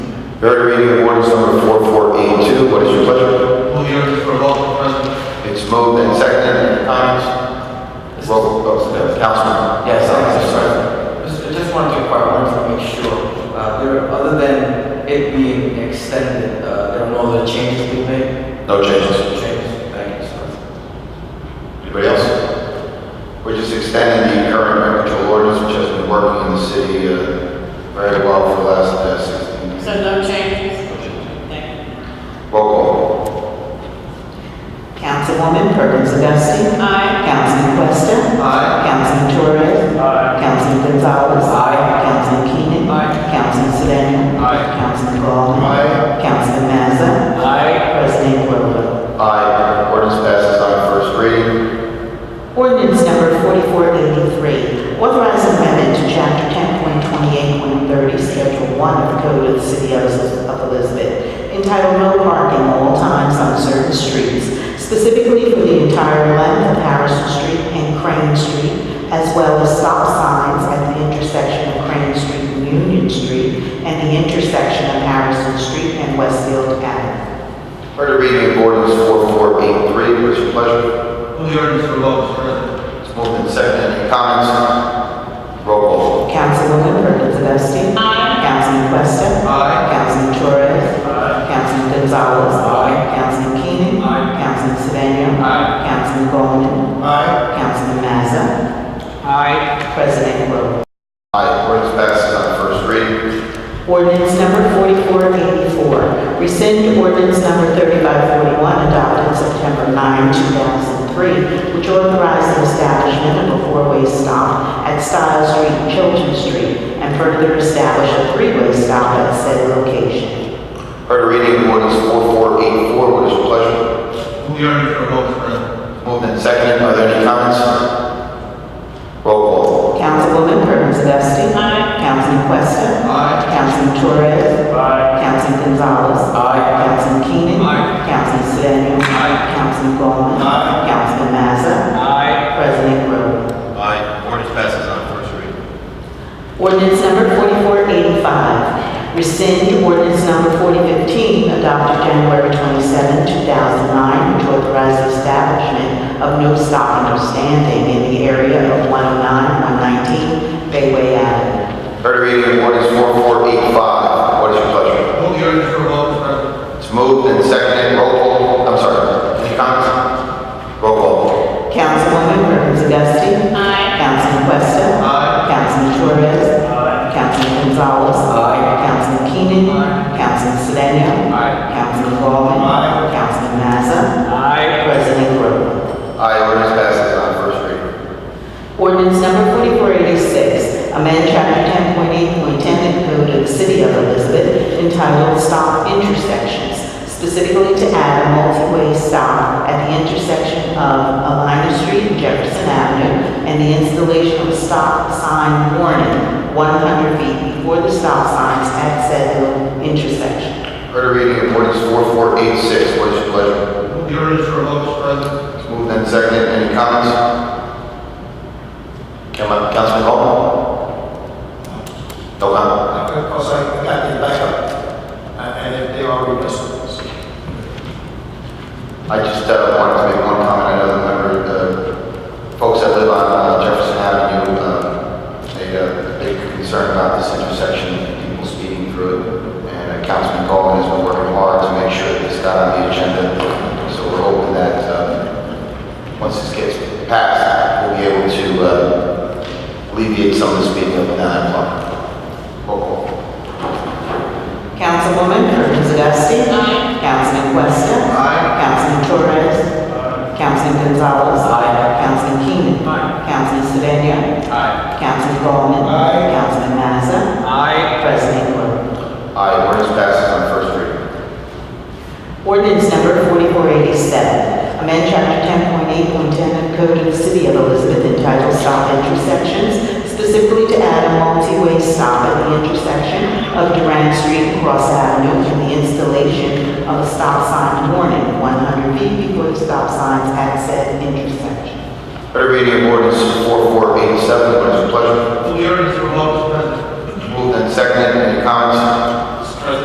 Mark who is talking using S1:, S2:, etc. S1: Third reading of ordinance number 4482, what is your pleasure?
S2: Move the ordinance for a vote, Mr. President.
S1: It's moved and seconded, any comments? Roll, oh, Councilman.
S3: Yes, I'm sorry. Just- I just wanted to inquire, I wanted to make sure, uh, there, other than it being extended, uh, there are no other changes being made?
S1: No changes.
S3: Changes, thank you, sir.
S1: Anybody else? We're just extending the current rent control ordinance, which has been working in the city uh, very well for the last uh, 16 years.
S4: So no changes? Thank you.
S1: Roll call.
S5: Councilwoman Perkins Dusting.
S4: Aye.
S5: Councilman Questa.
S2: Aye.
S5: Councilman Torres.
S2: Aye.
S5: Councilman Gonzalez.
S3: Aye.
S5: Councilman Keenan.
S3: Aye.
S5: Councilman Sedan.
S2: Aye.
S5: Councilman Ballmer.
S1: Aye.
S5: Councilman Mazza.
S3: Aye.
S5: President Quirrell.
S1: Aye, ordinance passes on first reading.
S5: Ordinance number 4483, authorizing amendment to chapter 10.28, 130, schedule 1 of the Code of the City of of Elizabeth, entitled No Parking All Times on Certain Streets, specifically for the entire length of Harrison Street and Crane Street, as well as stop signs at the intersection of Crane Street and Union Street, and the intersection of Harrison Street and Westfield Avenue.
S1: Heard the reading of ordinance 4483, what is your pleasure?
S2: Move the ordinance for a vote, Mr. President.
S1: It's moved and seconded, any comments? Roll call.
S5: Councilwoman Perkins Dusting.
S4: Aye.
S5: Councilman Questa.
S2: Aye.
S5: Councilman Torres. Councilman Gonzalez. Councilman Keenan.
S2: Aye.
S5: Councilman Sedan.
S2: Aye.
S5: Councilman Gollman.
S2: Aye.
S5: Councilman Mazza. Aye. President Quirrell.
S1: Aye, ordinance passes on first reading.
S5: Ordinance number 4484, rescind ordinance number 3541 adopted September 9, 2003, which authorized the establishment of a four-way stop at Stiles Street, and Chilton Street, and further establish a three-way stop at said location.
S1: Heard the reading of ordinance 4484, what is your pleasure?
S2: Move the ordinance for a vote, Mr. President.
S1: Moved and seconded, are there any comments? Roll call.
S5: Councilwoman Perkins Dusting.
S4: Aye.
S5: Councilman Questa.
S2: Aye.
S5: Councilman Torres. Aye. Councilman Gonzalez. Aye. Councilman Keenan.
S2: Aye.
S5: Councilman Sedan.
S2: Aye.
S5: Councilman Gollman.
S2: Aye.
S5: Councilman Mazza. Aye. President Grover.
S1: Aye, ordinance passes on first reading.
S5: Ordinance number 4485, rescind ordinance number 4015 adopted January 27, 2009, which authorized establishment of no stopping or standing in the area of 109, 119 Bayway Avenue.
S1: Heard the reading of ordinance 4485, what is your pleasure?
S2: Move the ordinance for a vote, Mr. President.
S1: It's moved and seconded, roll call, I'm sorry, any comments? Roll call.
S5: Councilwoman Perkins Dusting.
S4: Aye.
S5: Councilman Questa.
S2: Aye.
S5: Councilman Torres. Councilman Gonzalez.
S3: Aye.
S5: Councilman Keenan.
S2: Aye.
S5: Councilman Sedan.
S2: Aye.
S5: Councilman Ballmer.
S2: Aye.
S5: Councilman Mazza.
S3: Aye.
S5: President Grover.
S1: Aye, ordinance passes on first reading.
S5: Ordinance number 4486, amend chapter 10.8.10 of the Code of the City of Elizabeth entitled Stop Intersections, specifically to add a multi-way stop at the intersection of Alina Street and Jefferson Avenue, and the installation of a stop sign warning 100 feet before the stop signs at said intersection.
S1: Heard the reading of ordinance 4486, what is your pleasure?
S2: Move the ordinance for a vote, Mr. President.
S1: It's moved and seconded, any comments? Come on, Councilman Hall? No comment?
S6: Because I got them back up, uh, and they are replacements.
S1: I just uh, wanted to make one comment. I know the member, the folks that live on uh, Jefferson Avenue, um, they uh, big concern about this intersection and people speeding through it. And uh, Councilman Goldman has been working hard to make sure that this got on the agenda. So we're hoping that uh, once this gets passed, we'll be able to uh, alleviate some of the speeding up and down that block. Roll call.
S5: Councilwoman Perkins Dusting.
S4: Aye.
S5: Councilman Questa.
S2: Aye.
S5: Councilman Torres. Councilman Gonzalez. Councilman Keenan. Councilman Sedan. Councilman Gollman.
S2: Aye.
S5: Councilman Mazza. President Quirrell.
S1: Aye, ordinance passes on first reading.
S5: Ordinance number 4487, amend chapter 10.8.10 of Code of the City of Elizabeth entitled Stop Intersections, specifically to add a multi-way stop at the intersection of Durant Street and Cross Avenue and the installation of a stop sign warning 100 feet before the stop signs at said intersection.
S1: Third reading of ordinance 4487, what is your pleasure?
S2: Move the ordinance for a vote, Mr. President.
S1: Moved and seconded, any comments?